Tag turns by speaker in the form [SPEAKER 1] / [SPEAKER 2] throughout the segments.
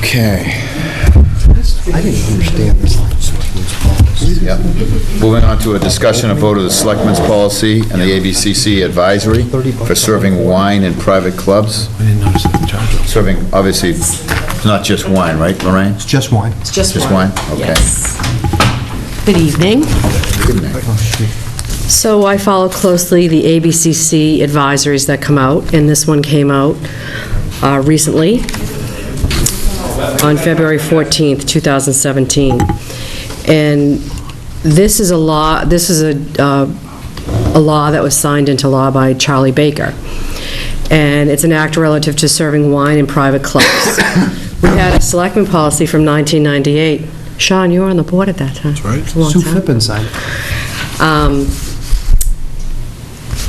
[SPEAKER 1] Okay,
[SPEAKER 2] I didn't understand this policy.
[SPEAKER 1] moving on to a discussion of vote of the Selectmen's Policy and the ABCC Advisory for serving wine in private clubs.
[SPEAKER 2] I didn't notice the charge.
[SPEAKER 1] Serving, obviously, it's not just wine, right, Lorraine?
[SPEAKER 2] It's just wine.
[SPEAKER 3] It's just
[SPEAKER 1] Just
[SPEAKER 3] one.
[SPEAKER 1] one? Okay.
[SPEAKER 3] Yes. Good evening.
[SPEAKER 1] Good night.
[SPEAKER 3] So I follow closely the ABCC advisories that come out, and this one came out uh, recently on February 14th, 2017. And this is a law, this is a, uh, a law that was signed into law by Charlie Baker. And it's an act relative to serving wine in private clubs. We had a selectman policy from 1998. Sean, you were on the board at that time. That's right. It's a long
[SPEAKER 2] Sue
[SPEAKER 3] time.
[SPEAKER 2] Flippin signed
[SPEAKER 3] Um,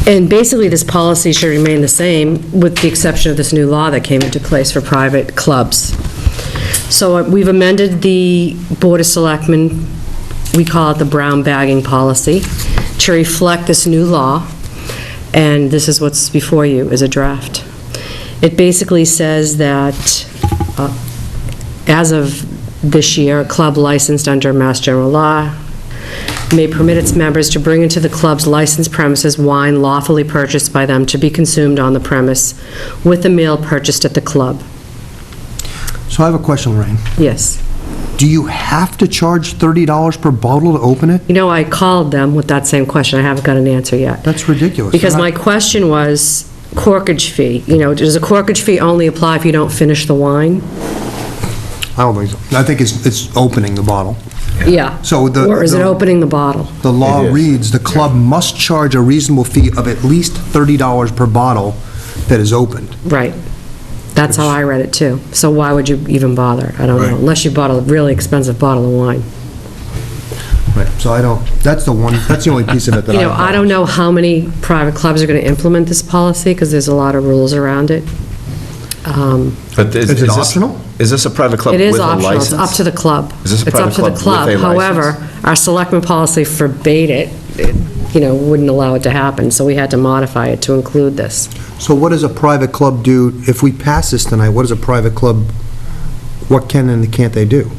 [SPEAKER 3] And basically, this policy should remain the same, with the exception of this new law that came into place for private clubs. So uh, we've amended the Board of Selectmen, we call it the brown bagging policy, to reflect this new law, and this is what's before you, is a draft. It basically says that, uh, as of this year, a club licensed under Mass General Law may permit its members to bring into the club's licensed premises wine lawfully purchased by them to be consumed on the premise with a meal purchased at the club.
[SPEAKER 2] So I have a question, Lorraine.
[SPEAKER 3] Yes.
[SPEAKER 2] Do you have to charge $30 per bottle to open it?
[SPEAKER 3] You know, I called them with that same question. I haven't got an answer yet.
[SPEAKER 2] That's ridiculous.
[SPEAKER 3] Because my question was corkage fee. You know, does a corkage fee only apply if you don't finish the wine?
[SPEAKER 2] I don't think so. I think it's, it's opening the bottle.
[SPEAKER 3] Yeah.
[SPEAKER 2] So the-
[SPEAKER 3] Or is it
[SPEAKER 2] the-
[SPEAKER 3] opening the bottle?
[SPEAKER 2] The law
[SPEAKER 1] It is.
[SPEAKER 2] reads, "The club must charge a reasonable fee of at least $30 per bottle that is opened."
[SPEAKER 3] Right. That's how I read it, too. So why would you even bother? I don't know, unless you bought a really expensive bottle of wine.
[SPEAKER 2] Right. So I don't, that's the one, that's the only piece of it that I...
[SPEAKER 3] You know, I don't know how many private clubs are going to implement this policy, because there's a lot of rules around it. Um,
[SPEAKER 1] But is
[SPEAKER 2] Is it
[SPEAKER 1] this-
[SPEAKER 2] optional?
[SPEAKER 1] Is this a private club
[SPEAKER 3] It
[SPEAKER 1] with a
[SPEAKER 3] is
[SPEAKER 1] license?
[SPEAKER 3] optional, it's up to the club.
[SPEAKER 1] Is this a
[SPEAKER 3] It's up
[SPEAKER 1] private
[SPEAKER 3] to the
[SPEAKER 1] club with a
[SPEAKER 3] club.
[SPEAKER 1] license?
[SPEAKER 3] However, our selectman policy forbade it, It, you know, wouldn't allow it to happen, so we had to modify it to include this.
[SPEAKER 2] So what does a private club do, if we pass this tonight, what does a private club, what can and can't they do?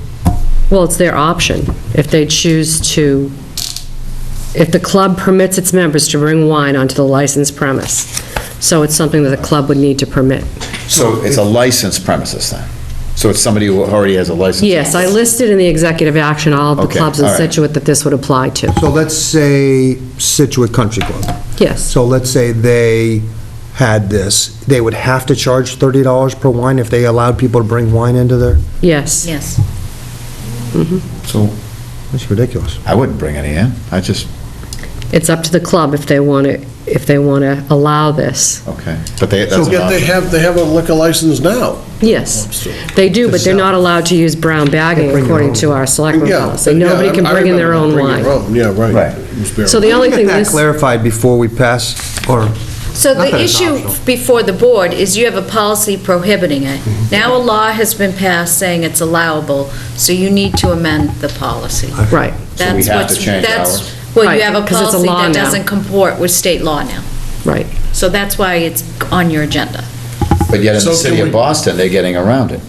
[SPEAKER 3] Well, it's their option, if they choose to, if the club permits its members to bring wine onto the licensed premise. So it's something that the club would need to permit.
[SPEAKER 1] So it's a licensed premises then? So it's somebody who already has a license?
[SPEAKER 3] Yes, I listed in the executive action all of the
[SPEAKER 1] Okay,
[SPEAKER 3] clubs in
[SPEAKER 1] all right.
[SPEAKER 3] Situate that this would apply to.
[SPEAKER 2] So let's say Situate Country Club.
[SPEAKER 3] Yes,
[SPEAKER 2] So let's say they had this, they would have to charge $30 per wine if they allowed people to bring wine into their,
[SPEAKER 3] yes.
[SPEAKER 4] Yes.
[SPEAKER 1] So
[SPEAKER 2] that's ridiculous.
[SPEAKER 1] I wouldn't bring any in. I just,
[SPEAKER 3] It's up to the club if they want to, if they want to allow this.
[SPEAKER 1] okay. But they, that's an
[SPEAKER 5] Yet they
[SPEAKER 1] option.
[SPEAKER 5] have, they have a liquor license now.
[SPEAKER 3] Yes, they do, but they're not allowed to use brown bagging
[SPEAKER 2] bring their
[SPEAKER 3] according
[SPEAKER 2] own.
[SPEAKER 3] to our selectmen
[SPEAKER 5] Yeah.
[SPEAKER 3] policy. Nobody
[SPEAKER 5] yeah,
[SPEAKER 3] can
[SPEAKER 5] I
[SPEAKER 3] bring in their own
[SPEAKER 5] remember, bring your
[SPEAKER 3] wine.
[SPEAKER 5] own, Yeah, right.
[SPEAKER 1] Right.
[SPEAKER 5] It was bare-
[SPEAKER 3] So the only thing
[SPEAKER 2] Get that
[SPEAKER 3] this,
[SPEAKER 2] clarified before we pass, or,
[SPEAKER 4] So
[SPEAKER 2] Not that
[SPEAKER 4] the
[SPEAKER 2] it's
[SPEAKER 4] issue
[SPEAKER 2] optional.
[SPEAKER 4] before the board is you have a policy prohibiting it.
[SPEAKER 2] Mm-hmm.
[SPEAKER 4] Now a law has been passed saying it's allowable, so you need to amend the policy.
[SPEAKER 3] right,
[SPEAKER 1] So we have
[SPEAKER 4] That's
[SPEAKER 1] to
[SPEAKER 4] what's-
[SPEAKER 1] change
[SPEAKER 4] that's-
[SPEAKER 1] ours?
[SPEAKER 4] Well, you
[SPEAKER 3] Right,
[SPEAKER 4] have a
[SPEAKER 3] 'cause it's a
[SPEAKER 4] policy
[SPEAKER 3] law
[SPEAKER 4] that
[SPEAKER 3] now.
[SPEAKER 4] doesn't comport with state law now.
[SPEAKER 3] right.
[SPEAKER 4] So that's why it's on your agenda.
[SPEAKER 1] But yet in
[SPEAKER 5] So
[SPEAKER 1] the
[SPEAKER 5] can
[SPEAKER 1] city of
[SPEAKER 5] we-
[SPEAKER 1] Boston, they're getting around it.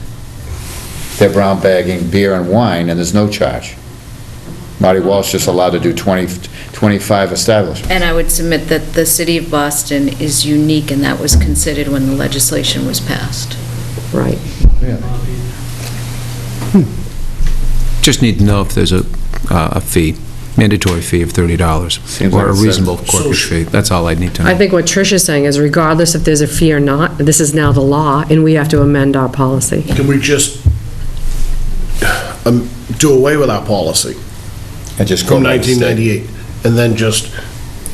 [SPEAKER 1] They're brown bagging beer and wine and there's no charge. Marty Walsh just allowed to do 20, 25 establishments.
[SPEAKER 4] And I would submit that the city of Boston is unique, and that was considered when the legislation was passed.
[SPEAKER 3] Right.
[SPEAKER 6] Just need to know if there's a, uh, a fee, mandatory fee of $30,
[SPEAKER 1] Seems like
[SPEAKER 6] or a
[SPEAKER 1] it's a-
[SPEAKER 6] reasonable corporate fee. That's all I need to
[SPEAKER 3] I
[SPEAKER 6] know.
[SPEAKER 3] think what Trish is saying is regardless if there's a fee or not, this is now the law, and we have to amend our policy.
[SPEAKER 5] Can we just um, do away with our policy
[SPEAKER 1] And just go
[SPEAKER 5] from
[SPEAKER 1] by the state.
[SPEAKER 5] 1998 and then just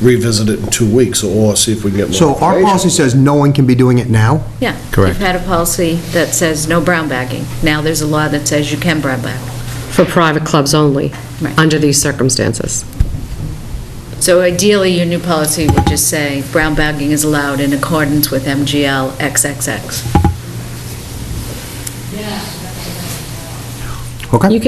[SPEAKER 5] revisit it in two weeks or see if we can get more?
[SPEAKER 2] so our policy says no one can be doing it now?
[SPEAKER 4] Yeah.
[SPEAKER 6] Correct.
[SPEAKER 4] You've had a policy that says no brown bagging. Now there's a law that says you can brown bag.
[SPEAKER 3] For private clubs only,
[SPEAKER 4] Right.
[SPEAKER 3] under these circumstances.
[SPEAKER 4] So ideally, your new policy would just say, brown bagging is allowed in accordance with MGL XXX.
[SPEAKER 2] Okay?
[SPEAKER 3] You